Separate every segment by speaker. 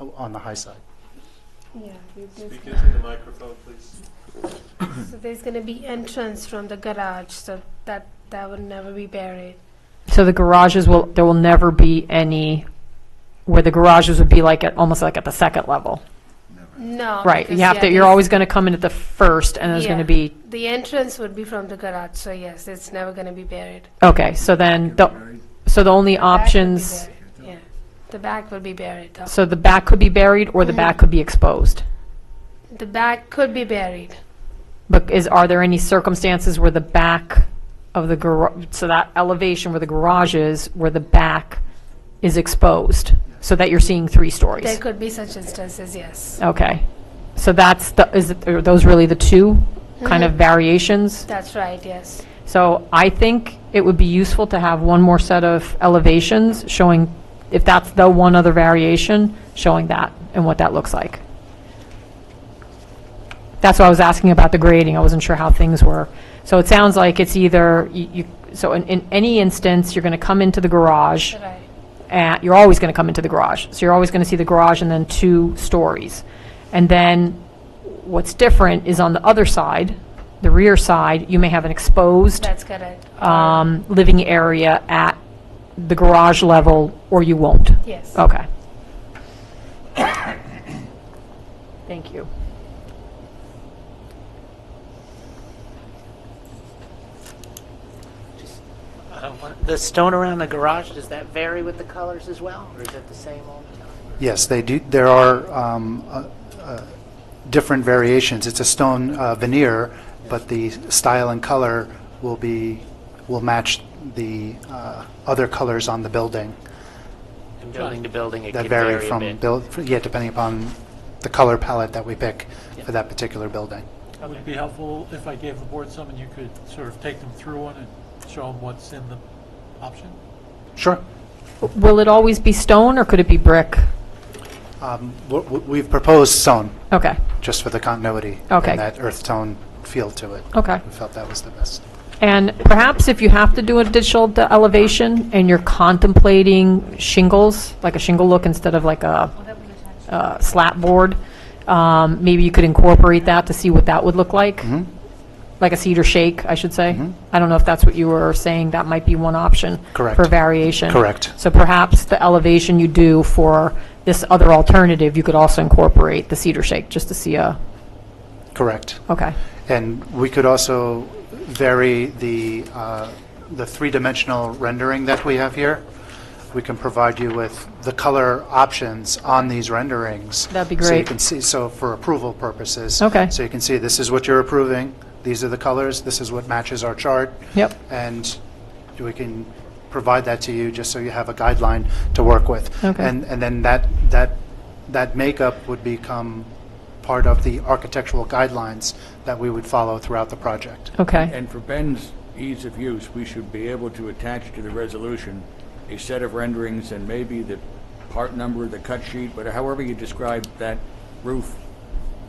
Speaker 1: Oh, on the high side.
Speaker 2: Yeah, you- there's,
Speaker 3: Speak into the microphone, please.
Speaker 2: so there's gonna be entrance from the garage, so that, that would never be buried.
Speaker 4: So the garages will, there will never be any, where the garages would be like, at almost like at the second level.
Speaker 2: No.
Speaker 4: Right, you
Speaker 2: because,
Speaker 4: have
Speaker 2: Oh, yeah,
Speaker 4: to, you're
Speaker 2: there's-
Speaker 4: always going to come in at the first, and there's going
Speaker 2: Yeah.
Speaker 4: to be,
Speaker 2: The entrance would be from the garage, so yes, it's never gonna be buried.
Speaker 4: okay, so then, the so the only
Speaker 2: Back would be
Speaker 4: options,
Speaker 2: buried, Yeah, the back will be buried though.
Speaker 4: so the back could be buried, or the
Speaker 2: Mhm.
Speaker 4: back could be exposed?
Speaker 2: The back could be buried.
Speaker 4: But is, are there any circumstances where the back of the garage, so that elevation where the garage is, where the back is exposed, so that you're seeing three
Speaker 2: There
Speaker 4: stories?
Speaker 2: could be such instances, yes.
Speaker 4: Okay, so that's, the is, it- are those really the two kind of variations?
Speaker 2: That's right, yes.
Speaker 4: So I think it would be useful to have one more set of elevations showing, if that's the one other variation, showing that and what that looks like. That's why I was asking about the grading. I wasn't sure how things were. So it sounds like it's either, you, you- so in, in any instance, you're going to come into the garage
Speaker 2: Right,
Speaker 4: at, you're always going to come into the garage. So you're always going to see the garage and then two stories. And then what's different is on the other side, the rear side, you may have an exposed
Speaker 2: that's correct.
Speaker 4: um, living area at the garage level, or you won't.
Speaker 2: Yes.
Speaker 4: Okay. Thank you.
Speaker 5: Uh, what- The stone around the garage, does that vary with the colors as well, or is it the same all the time?
Speaker 1: Yes, they do, there are um, uh, uh, different variations. It's a stone uh, veneer, but the style and color will be, will match the uh, other colors on the building
Speaker 5: From building to building, it
Speaker 1: that
Speaker 5: can
Speaker 1: vary
Speaker 5: vary a
Speaker 1: from,
Speaker 5: bit.
Speaker 1: buil- yeah, depending upon the color palette that we pick for that particular building.
Speaker 6: Would it be helpful if I gave the board some and you could sort of take them through one and show them what's in the option?
Speaker 1: Sure.
Speaker 4: Will it always be stone, or could it be brick?
Speaker 1: Um, w- w- We've proposed stone,
Speaker 4: Okay,
Speaker 1: just for the continuity.
Speaker 4: Okay.
Speaker 1: And that earth tone feel to it.
Speaker 4: okay.
Speaker 1: We felt that was the best.
Speaker 4: And perhaps if you have to do additional de- elevation and you're contemplating shingles, like a shingle look instead of like a uh, slat board, um, maybe you could incorporate that to see what that would look like?
Speaker 1: Mhm.
Speaker 4: Like a cedar shake, I should say?
Speaker 1: Mhm.
Speaker 4: I don't know if that's what you were saying, that might be one option.
Speaker 1: Correct.
Speaker 4: For variation.
Speaker 1: Correct.
Speaker 4: So perhaps the elevation you do for this other alternative, you could also incorporate the cedar shake, just to see a,
Speaker 1: Correct.
Speaker 4: okay,
Speaker 1: And we could also vary the, uh, the three-dimensional rendering that we have here. We can provide you with the color options on these renderings.
Speaker 4: That'd be
Speaker 1: So you
Speaker 4: great.
Speaker 1: can see, so for approval purposes.
Speaker 4: Okay.
Speaker 1: So you can see, this is what you're approving, these are the colors, this is what matches our chart.
Speaker 4: Yep.
Speaker 1: And we can provide that to you, just so you have a guideline to work with.
Speaker 4: Okay.
Speaker 1: And, and then that, that, that makeup would become part of the architectural guidelines that we would follow throughout the project.
Speaker 4: okay.
Speaker 7: And for Ben's ease of use, we should be able to attach to the resolution a set of renderings and maybe the part number, the cut sheet, but however you describe that roof,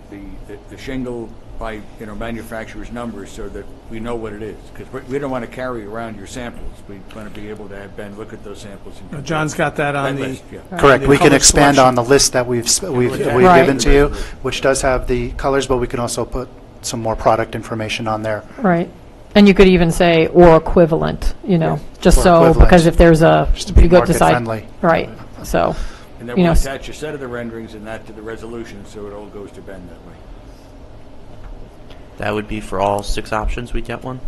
Speaker 7: the, the- the shingle by, you know, manufacturer's numbers so that we know what it is. Because we, we don't want to carry around your samples. We want to be able to have Ben look at those samples and. compare.
Speaker 8: John's got that on
Speaker 7: That
Speaker 8: the,
Speaker 7: list, yeah.
Speaker 1: Correct,
Speaker 8: The
Speaker 1: we can
Speaker 8: color
Speaker 1: expand on
Speaker 8: selection.
Speaker 1: the list that we've, s- we've,
Speaker 7: Yeah.
Speaker 1: we've
Speaker 4: Right.
Speaker 1: given to you,
Speaker 7: Right.
Speaker 1: which does have the colors, but we can also put some more product information on there.
Speaker 4: Right. And you could even say, or equivalent, you know, just
Speaker 1: Or
Speaker 4: so,
Speaker 1: equivalent.
Speaker 4: because if there's a,
Speaker 1: Just to be
Speaker 4: you go
Speaker 1: market
Speaker 4: decide.
Speaker 1: friendly.
Speaker 4: Right, so,
Speaker 7: And then
Speaker 4: you
Speaker 7: we
Speaker 4: know, s-
Speaker 7: attach a set of the renderings and that to the resolution so it all goes to Ben that way.
Speaker 9: That would be for all six options, we get one?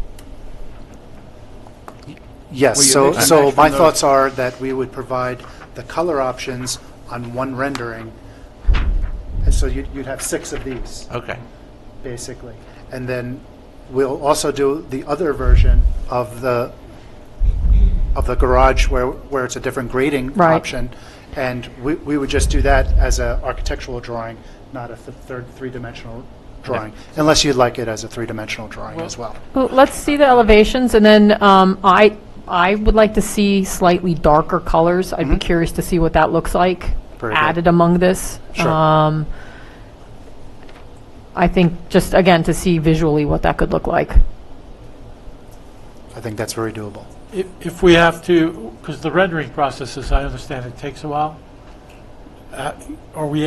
Speaker 1: Yes,
Speaker 7: Well, you
Speaker 1: so,
Speaker 7: mix and
Speaker 1: so
Speaker 7: match
Speaker 1: my
Speaker 7: from those.
Speaker 1: thoughts are that we would provide the color options on one rendering, and so you'd, you'd have six of these.
Speaker 9: Okay.
Speaker 1: basically. And then we'll also do the other version of the, of the garage where, where it's a different grading
Speaker 4: Right.
Speaker 1: option. And we, we would just do that as a architectural drawing, not a th- third, three-dimensional drawing, unless you'd like it as a three-dimensional drawing as well.
Speaker 4: Well, let's see the elevations, and then um, I, I would like to see slightly darker colors. I'd be
Speaker 1: Mhm.
Speaker 4: curious to see what that looks like
Speaker 1: Very good.
Speaker 4: added among this.
Speaker 1: Sure.
Speaker 4: Um, I think, just again, to see visually what that could look like.
Speaker 1: I think that's very doable.
Speaker 6: If, if we have to, because the rendering process, as I understand it, takes a while, uh, are we